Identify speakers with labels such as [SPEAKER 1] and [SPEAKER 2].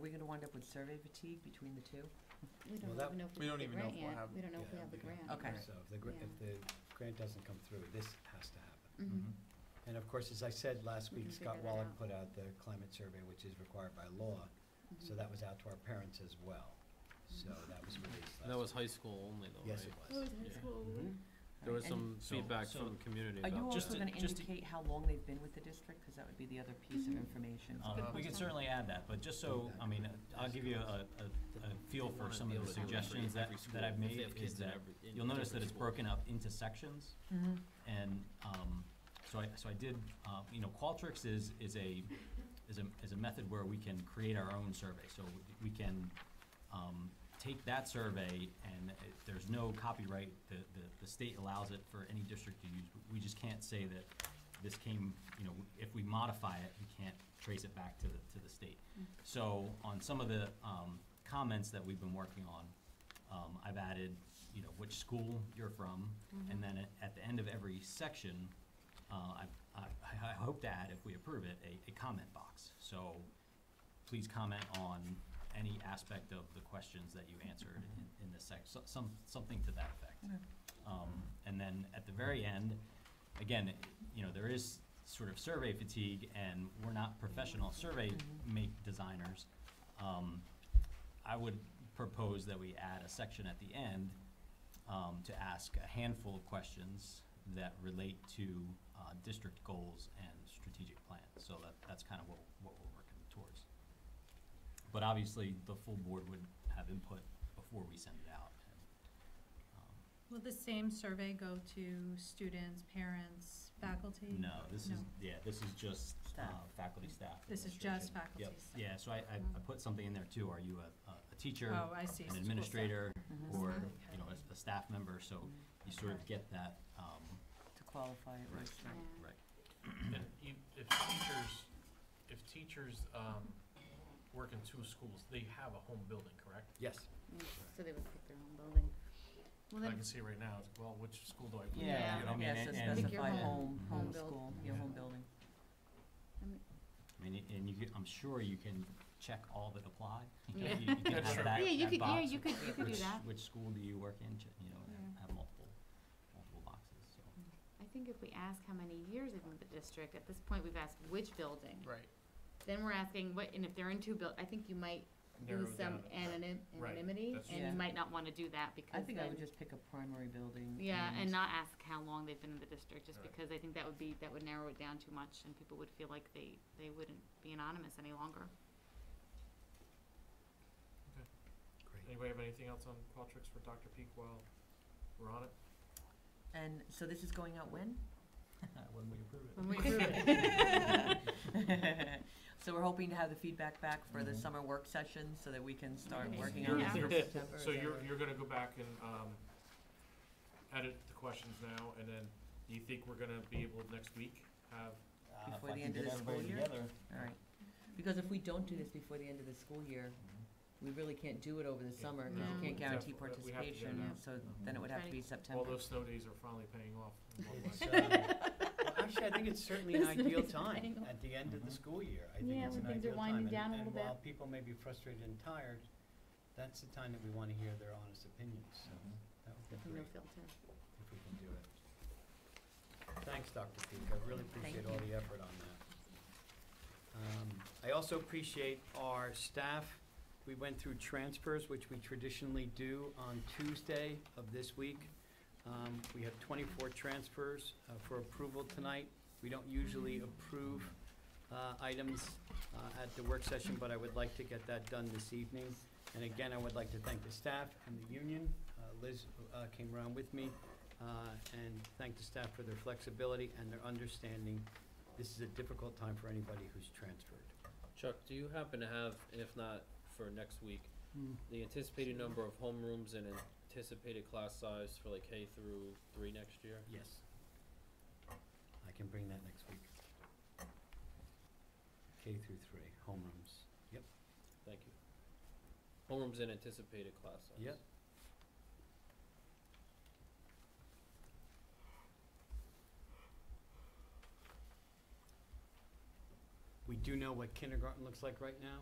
[SPEAKER 1] we gonna wind up with survey fatigue between the two?
[SPEAKER 2] Well,
[SPEAKER 3] We don't
[SPEAKER 2] that-
[SPEAKER 3] even know if
[SPEAKER 4] we
[SPEAKER 3] we have
[SPEAKER 4] don't even know
[SPEAKER 3] the
[SPEAKER 4] if
[SPEAKER 3] grant
[SPEAKER 4] we'll
[SPEAKER 3] yet.
[SPEAKER 4] have-
[SPEAKER 3] We don't know if we
[SPEAKER 2] Yeah,
[SPEAKER 3] have the
[SPEAKER 2] we don't-
[SPEAKER 3] grant.
[SPEAKER 1] Okay.
[SPEAKER 2] So if the, gr- if the grant doesn't come through, this has to happen.
[SPEAKER 3] Mhm.
[SPEAKER 2] And of course, as I said last
[SPEAKER 3] We
[SPEAKER 2] week,
[SPEAKER 3] can
[SPEAKER 2] Scott
[SPEAKER 3] figure that
[SPEAKER 2] Wallach
[SPEAKER 3] out.
[SPEAKER 2] put out the climate survey, which is required by law, Mm-hmm. so
[SPEAKER 3] Mhm.
[SPEAKER 2] that was out to our parents as well. So
[SPEAKER 3] Mm-hmm.
[SPEAKER 2] that was released last week.
[SPEAKER 5] That was high school only though, right?
[SPEAKER 2] Yes, it
[SPEAKER 3] Oh,
[SPEAKER 2] was.
[SPEAKER 3] it's high
[SPEAKER 5] Yeah.
[SPEAKER 3] school.
[SPEAKER 2] Mhm.
[SPEAKER 5] There was
[SPEAKER 1] And
[SPEAKER 5] some
[SPEAKER 2] So-
[SPEAKER 5] feedback
[SPEAKER 6] so-
[SPEAKER 5] from the community
[SPEAKER 1] Are
[SPEAKER 5] about.
[SPEAKER 1] you
[SPEAKER 6] Just
[SPEAKER 1] also
[SPEAKER 6] to-
[SPEAKER 1] gonna
[SPEAKER 6] just to-
[SPEAKER 1] indicate how long they've been with the district? Cause that would be the other piece of
[SPEAKER 3] Mhm.
[SPEAKER 1] information.
[SPEAKER 6] Um,
[SPEAKER 3] good
[SPEAKER 6] We can
[SPEAKER 3] point.
[SPEAKER 6] certainly add that, but just so, I mean, uh, I'll give you a, a, a feel for some of the suggestions that, that I've made is that you'll notice that it's broken up into sections
[SPEAKER 1] Mhm.
[SPEAKER 6] and, um, so I, so I did, uh, you know, Qualtrics is, is a, is a, is a method where we can create our own survey. So we can, um, take that survey and it- there's no copyright, the, the, the state allows it for any district to use. We just can't say that this came, you know, if we modify it, we can't trace it back to the, to the state.
[SPEAKER 3] Mm.
[SPEAKER 6] So on some of the, um, comments that we've been working on, um, I've added, you know, which school you're from, and then at, at the end of every section, uh, I, I, I hope to add, if we approve it, a, a comment box. So please comment on any aspect of the questions that you answered in, in this sec, so- some, something to that effect.
[SPEAKER 1] Okay.
[SPEAKER 6] Um, and then at the very end, again, it- you know, there is sort of survey fatigue and we're not professional survey
[SPEAKER 1] Mhm.
[SPEAKER 6] make designers. Um, I would propose that we add a section at the end, um, to ask a handful of questions that relate to, uh, district goals and strategic plans. So that, that's kind of what, what we're working towards. But obviously, the full board would have input before we send it out. Um,
[SPEAKER 7] Will the same survey go to students, parents, faculty?
[SPEAKER 6] No, this is,
[SPEAKER 7] Mm. No.
[SPEAKER 6] yeah, this is just uh,
[SPEAKER 1] Staff.
[SPEAKER 6] faculty, staff.
[SPEAKER 7] This is
[SPEAKER 6] administration.
[SPEAKER 7] just faculty
[SPEAKER 6] Yep.
[SPEAKER 7] staff.
[SPEAKER 6] Yeah, so I, I I put something in there too. Are you a, a a teacher,
[SPEAKER 7] Oh, I see.
[SPEAKER 6] an administrator,
[SPEAKER 1] Mhm.
[SPEAKER 6] or,
[SPEAKER 7] Mhm.
[SPEAKER 6] you know, a, a staff member? So
[SPEAKER 7] Mm-hmm.
[SPEAKER 6] you sort of get that, um,
[SPEAKER 1] To qualify it, right,
[SPEAKER 3] Yeah.
[SPEAKER 1] right.
[SPEAKER 6] right.
[SPEAKER 8] And if, if teachers, if teachers, um, work in two schools, they have a home building, correct?
[SPEAKER 2] Yes.
[SPEAKER 3] Yeah, So they would pick their own building. Well,
[SPEAKER 8] I
[SPEAKER 3] then,
[SPEAKER 8] can see right now, it's, well, which school do I? put in?
[SPEAKER 1] Yeah,
[SPEAKER 6] you know, I mean,
[SPEAKER 1] yeah, so
[SPEAKER 6] and- and-
[SPEAKER 3] Pick your
[SPEAKER 1] specify home,
[SPEAKER 6] home-
[SPEAKER 1] home
[SPEAKER 3] home build-
[SPEAKER 1] school, your home
[SPEAKER 6] Yeah.
[SPEAKER 1] building.
[SPEAKER 6] I mean, and you, can- I'm sure you can check all that apply. You know,
[SPEAKER 3] Yeah.
[SPEAKER 6] you- you can
[SPEAKER 8] That's
[SPEAKER 6] have
[SPEAKER 8] true.
[SPEAKER 6] that-
[SPEAKER 3] yeah, you
[SPEAKER 6] that
[SPEAKER 3] could, yeah,
[SPEAKER 6] box
[SPEAKER 3] you
[SPEAKER 6] of
[SPEAKER 3] could, you could do
[SPEAKER 6] which-
[SPEAKER 3] that.
[SPEAKER 6] Which school do you work in, ch- you know, and
[SPEAKER 3] Yeah.
[SPEAKER 6] have multiple, multiple boxes, so.
[SPEAKER 3] I think if we ask how many years they've been with the district, at this point, we've asked which building.
[SPEAKER 8] Right.
[SPEAKER 3] Then we're asking what, and if they're in two buil, I think you might
[SPEAKER 8] Narrow
[SPEAKER 3] lose
[SPEAKER 8] it
[SPEAKER 3] some
[SPEAKER 8] down.
[SPEAKER 3] anonym-
[SPEAKER 8] Right,
[SPEAKER 3] anonymity,
[SPEAKER 8] that's
[SPEAKER 3] and
[SPEAKER 1] true.
[SPEAKER 3] you might not wanna do that
[SPEAKER 1] I
[SPEAKER 3] because
[SPEAKER 1] think I would
[SPEAKER 3] then,
[SPEAKER 1] just pick a primary building.
[SPEAKER 3] yeah, and not ask how long they've been in the district, just
[SPEAKER 8] Right.
[SPEAKER 3] because I think that would be, that would narrow it down too much, and people would feel like they, they wouldn't be anonymous any longer.
[SPEAKER 2] Great.
[SPEAKER 8] Anybody have anything else on Qualtrics for Dr. Peak while we're on it?
[SPEAKER 1] And so this is going out when?
[SPEAKER 6] When we approve it.
[SPEAKER 3] When we approve it.
[SPEAKER 1] So we're hoping to have the feedback back for the
[SPEAKER 6] Mhm.
[SPEAKER 1] summer work session so that we can start
[SPEAKER 3] Okay.
[SPEAKER 1] working on it
[SPEAKER 3] Yeah.
[SPEAKER 1] for September.
[SPEAKER 8] So
[SPEAKER 1] is that
[SPEAKER 8] you're,
[SPEAKER 1] right?
[SPEAKER 8] you're gonna go back and, um, edit the questions now, and then do you think we're gonna be able next week have?
[SPEAKER 6] Uh, if
[SPEAKER 1] Before
[SPEAKER 6] I
[SPEAKER 1] the
[SPEAKER 6] can
[SPEAKER 1] end of
[SPEAKER 6] get
[SPEAKER 1] the school
[SPEAKER 6] everybody
[SPEAKER 1] year?
[SPEAKER 6] together,
[SPEAKER 1] All right. Because if we don't do this before the end of the school year, we really can't do it over the summer because
[SPEAKER 3] No.
[SPEAKER 1] you can't guarantee
[SPEAKER 8] Definitely. We have to do it
[SPEAKER 1] participation.
[SPEAKER 3] now.
[SPEAKER 1] So then it would have to be
[SPEAKER 3] Right.
[SPEAKER 8] All
[SPEAKER 1] September.
[SPEAKER 8] those snow days are finally paying off. in one way.
[SPEAKER 2] It's, uh, well, Actually, I think it's certainly an
[SPEAKER 3] This
[SPEAKER 2] ideal
[SPEAKER 3] is
[SPEAKER 2] time,
[SPEAKER 3] exciting.
[SPEAKER 2] at the end of the
[SPEAKER 6] Mhm.
[SPEAKER 2] school year. I think
[SPEAKER 3] Yeah,
[SPEAKER 2] it's
[SPEAKER 3] when
[SPEAKER 2] an
[SPEAKER 3] things are
[SPEAKER 2] ideal time,
[SPEAKER 3] winding
[SPEAKER 2] and-
[SPEAKER 3] down a little
[SPEAKER 2] And while
[SPEAKER 3] bit.
[SPEAKER 2] people may be frustrated and tired, that's the time that we want to hear their honest opinions, so
[SPEAKER 6] Mhm.
[SPEAKER 2] that would be
[SPEAKER 3] No
[SPEAKER 2] great
[SPEAKER 3] filter.
[SPEAKER 2] if we can do it. Thanks, Dr. Peak, I really appreciate all the effort on that. Um, I also appreciate our staff. We went through transfers, which we traditionally do on Tuesday of this week. Um, We have 24 transfers uh, for approval tonight. We don't usually approve uh, items uh, at the work session, but I would like to get that done this evening. And again, I would like to thank the staff and the union. Uh, Liz uh, came around with me, uh, and thank the staff for their flexibility and their understanding. This is a difficult time for anybody who's transferred.
[SPEAKER 5] Chuck, do you happen to have, and if not for next week,
[SPEAKER 2] Hmm.
[SPEAKER 5] the anticipated number of homerooms and anticipated class size for like K through three next year?
[SPEAKER 2] Yes. I can bring that next week. K through three, homerooms. Yep,
[SPEAKER 5] Thank you. Homerooms and anticipated class size.
[SPEAKER 2] Yep. we do know what kindergarten looks like right now.